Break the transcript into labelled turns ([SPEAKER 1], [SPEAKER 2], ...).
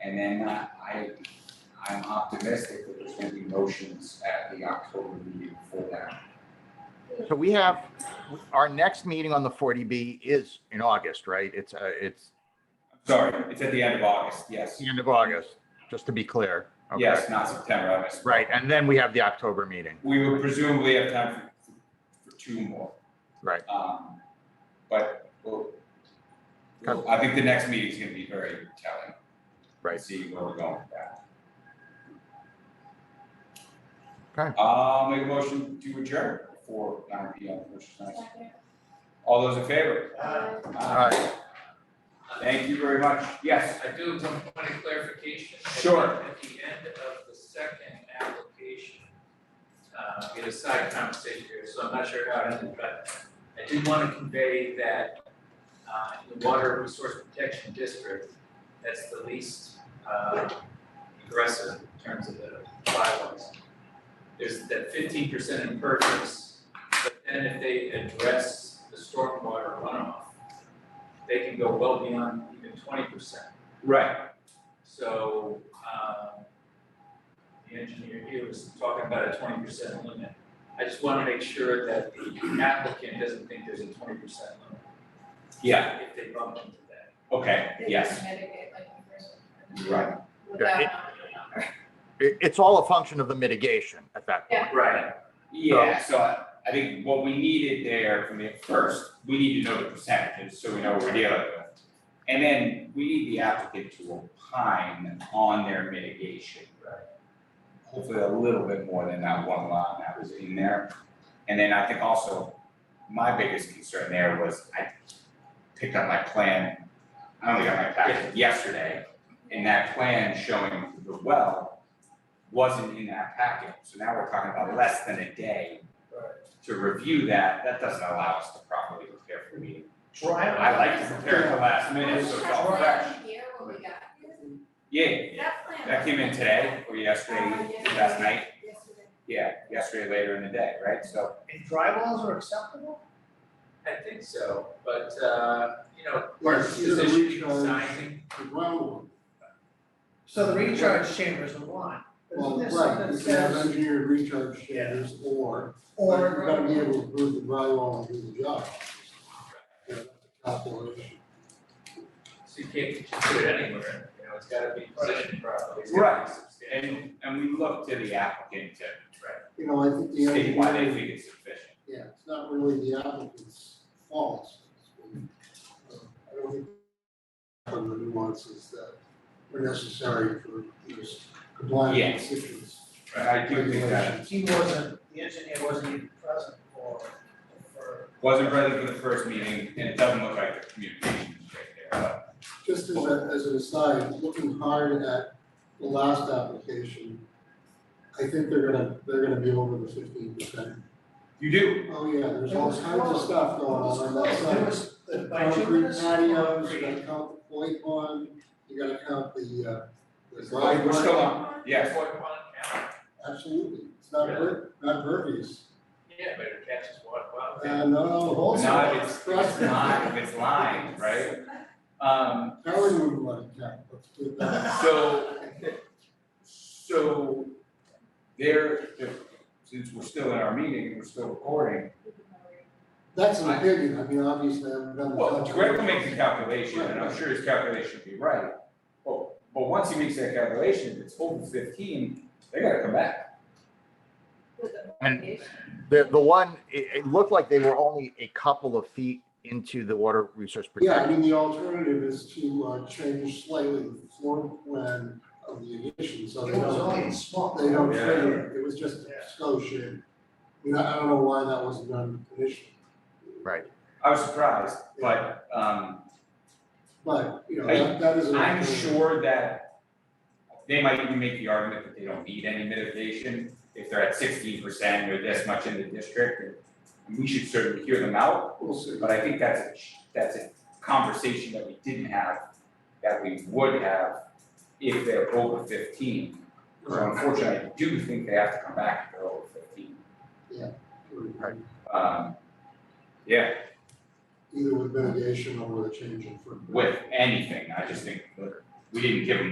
[SPEAKER 1] And then uh, I, I'm optimistic that there's gonna be motions at the October meeting for that.
[SPEAKER 2] So we have, our next meeting on the 40B is in August, right? It's, uh, it's
[SPEAKER 1] Sorry, it's at the end of August, yes.
[SPEAKER 2] the end of August, just to be clear. Okay.
[SPEAKER 1] Yes, not September, I missed.
[SPEAKER 2] Right, and then we have the October meeting,
[SPEAKER 1] We would presumably have time for, for two more.
[SPEAKER 2] right?
[SPEAKER 1] Um, but we'll, we'll- I think the next meeting is gonna be very telling.
[SPEAKER 2] Right.
[SPEAKER 1] See where we're going with that.
[SPEAKER 2] Okay.
[SPEAKER 1] I'll Uh, make a motion to adjourn before nine P M, which is nice. All those in favor?
[SPEAKER 2] Aye.
[SPEAKER 1] Thank you very much. Yes,
[SPEAKER 3] I do have one point of clarification.
[SPEAKER 1] Sure.
[SPEAKER 3] At the end of the second application, uh, we had a side conversation here, so I'm not sure how it ended, but I did want to convey that, uh, in the Water Resource Protection District, that's the least, uh, aggressive in terms of the bylaws. There's that fifteen percent in purchase, but then if they address the stormwater runoff, they can go well beyond even twenty percent.
[SPEAKER 1] right,
[SPEAKER 3] So, um, the engineer here was talking about a twenty percent limit. I just wanna make sure that the applicant doesn't think there's a twenty percent limit.
[SPEAKER 1] yeah,
[SPEAKER 3] If they bump into that.
[SPEAKER 1] okay, yes, right,
[SPEAKER 2] It, it's all a function of the mitigation at that point.
[SPEAKER 3] Right.
[SPEAKER 1] yeah, so I- I think what we needed there from the first, we need to know the percentages, so we know what we're dealing with. And then we need the applicant to opine on their mitigation. Right. Hopefully a little bit more than that one line that was in there. And then I think also, my biggest concern there was I picked up my plan, I only got my packet yesterday. And that plan showing the well wasn't in that packet, so now we're talking about less than a day to review that, that doesn't allow us to properly prepare for the meeting. I like to prepare at the last minute, so it's all fresh. Yeah, yeah, that came in today, or yesterday, last night, yeah, yesterday later in the day, right, so,
[SPEAKER 4] And drywalls are acceptable?
[SPEAKER 3] I think so, but, uh, you know,
[SPEAKER 5] Right,
[SPEAKER 3] this
[SPEAKER 5] you're the
[SPEAKER 3] issue
[SPEAKER 5] regional-
[SPEAKER 3] sizing,
[SPEAKER 5] The well,
[SPEAKER 4] So the recharge chambers are one.
[SPEAKER 5] well,
[SPEAKER 4] Isn't there
[SPEAKER 5] right,
[SPEAKER 4] something
[SPEAKER 5] you
[SPEAKER 4] that
[SPEAKER 5] can have
[SPEAKER 4] says,
[SPEAKER 5] engineered recharge chambers or, but
[SPEAKER 4] or
[SPEAKER 5] you've gotta be able to prove the drywall and do the job. Yeah, that's a calculation.
[SPEAKER 3] so you can't just put it anywhere, you know, it's gotta be positioned properly, it's gotta
[SPEAKER 1] Right.
[SPEAKER 3] be substantial.
[SPEAKER 1] and, and we look to the applicant to
[SPEAKER 5] You know, I think the
[SPEAKER 1] state why they
[SPEAKER 5] engineer,
[SPEAKER 1] think it's sufficient.
[SPEAKER 5] yeah, it's not really the applicant's fault. Uh, I don't think some of the nuances that are necessary for this compliance
[SPEAKER 1] Yes.
[SPEAKER 5] issues.
[SPEAKER 1] I do think that
[SPEAKER 4] he wasn't, the engineer wasn't even present for, for,
[SPEAKER 1] wasn't present for the first meeting, and it doesn't look like the communication is right there, but
[SPEAKER 5] Just as a, as an aside, looking hard at the last application, I think they're gonna, they're gonna be over the fifteen percent.
[SPEAKER 1] you do,
[SPEAKER 5] Oh, yeah, there's
[SPEAKER 4] It
[SPEAKER 5] all
[SPEAKER 4] was
[SPEAKER 5] kinds of
[SPEAKER 4] close.
[SPEAKER 5] stuff going on on that
[SPEAKER 4] there
[SPEAKER 5] side.
[SPEAKER 4] was, the
[SPEAKER 5] Concrete
[SPEAKER 4] bituminous
[SPEAKER 5] patios,
[SPEAKER 4] concrete.
[SPEAKER 5] you gotta count the plate one, you gotta count the, uh, the
[SPEAKER 1] It's
[SPEAKER 5] drive
[SPEAKER 1] We're still
[SPEAKER 5] one.
[SPEAKER 1] on, yes,
[SPEAKER 3] Point one count,
[SPEAKER 5] Absolutely, it's not per, not pervious.
[SPEAKER 3] yeah, but it catches water, well,
[SPEAKER 5] Uh, no, no, also,
[SPEAKER 1] not if it's,
[SPEAKER 5] trust
[SPEAKER 1] it's
[SPEAKER 5] me.
[SPEAKER 1] not if it's lined, right? Um,
[SPEAKER 5] Howard wouldn't want to count, let's put it that way.
[SPEAKER 1] so, so there, if- since we're still in our meeting, we're still recording.
[SPEAKER 5] That's an opinion, I mean, obviously, I haven't done the.
[SPEAKER 1] Well, Greg will make the
[SPEAKER 5] calculation.
[SPEAKER 1] calculation, and I'm sure his calculation will be right. But, but once he makes that calculation, if it's over fifteen, they gotta come back.
[SPEAKER 2] And the, the one, it, it looked like they were only a couple of feet into the water resource
[SPEAKER 5] Yeah, I
[SPEAKER 2] protection.
[SPEAKER 5] mean, the alternative is to uh, change slightly the floor plan of the addition, so they
[SPEAKER 4] It was only
[SPEAKER 5] don't,
[SPEAKER 4] a small.
[SPEAKER 5] they don't
[SPEAKER 1] Yeah.
[SPEAKER 5] trigger, it. it was just
[SPEAKER 4] Yeah.
[SPEAKER 5] scotia. You know, I don't know why that wasn't done initially,
[SPEAKER 1] I was surprised, but, um,
[SPEAKER 5] but, you know,
[SPEAKER 1] I-
[SPEAKER 5] that, that is an
[SPEAKER 1] I'm
[SPEAKER 5] alternative.
[SPEAKER 1] sure that they might even make the argument that they don't need any mitigation if they're at sixteen percent or this much in the district. and We should certainly hear them out,
[SPEAKER 5] We'll see.
[SPEAKER 1] but I think that's a, that's a conversation that we didn't have, that we would have if they're over fifteen. So unfortunately, I do think they have to come back if they're over fifteen. Um, yeah,
[SPEAKER 5] Either with mitigation or with a change in footprint.
[SPEAKER 1] with anything, I just think, look, we didn't give them